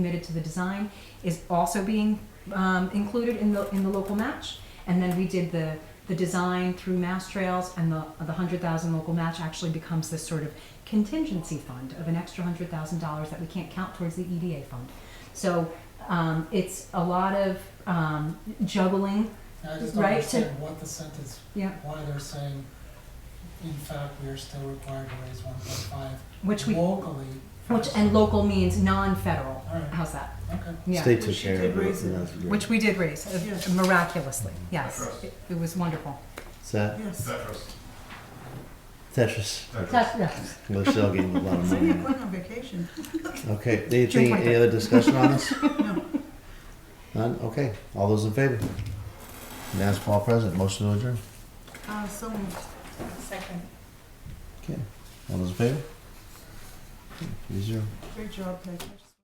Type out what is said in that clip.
committed to the design is also being um, included in the in the local match. And then we did the the design through Mass Trails, and the the hundred thousand local match actually becomes this sort of contingency fund of an extra hundred thousand dollars that we can't count towards the EDA fund. So um, it's a lot of um, juggling. I just don't Right, to- understand what the sentence, Yeah. why they're saying, in fact, we are still required to raise one point Which five we, locally. which and local means non-federal. All right, How's that? okay. Yeah. State took Which she care did of it. raise and it. that's great. Which we did raise uh, Yes. miraculously. Yes, Across. it, it was wonderful. Set. Yes. Tetris. Tetris. Tetris. That's, yes. Michelle getting a lot of So you're money. going on vacation. Okay. Anything, any other discussion on this? No. None? Okay. All those in favor? Now, Paul present. Motion to adjourn. Uh, so moved. Second. Okay. All those in favor? Okay, Three zero. Great job, Patricia.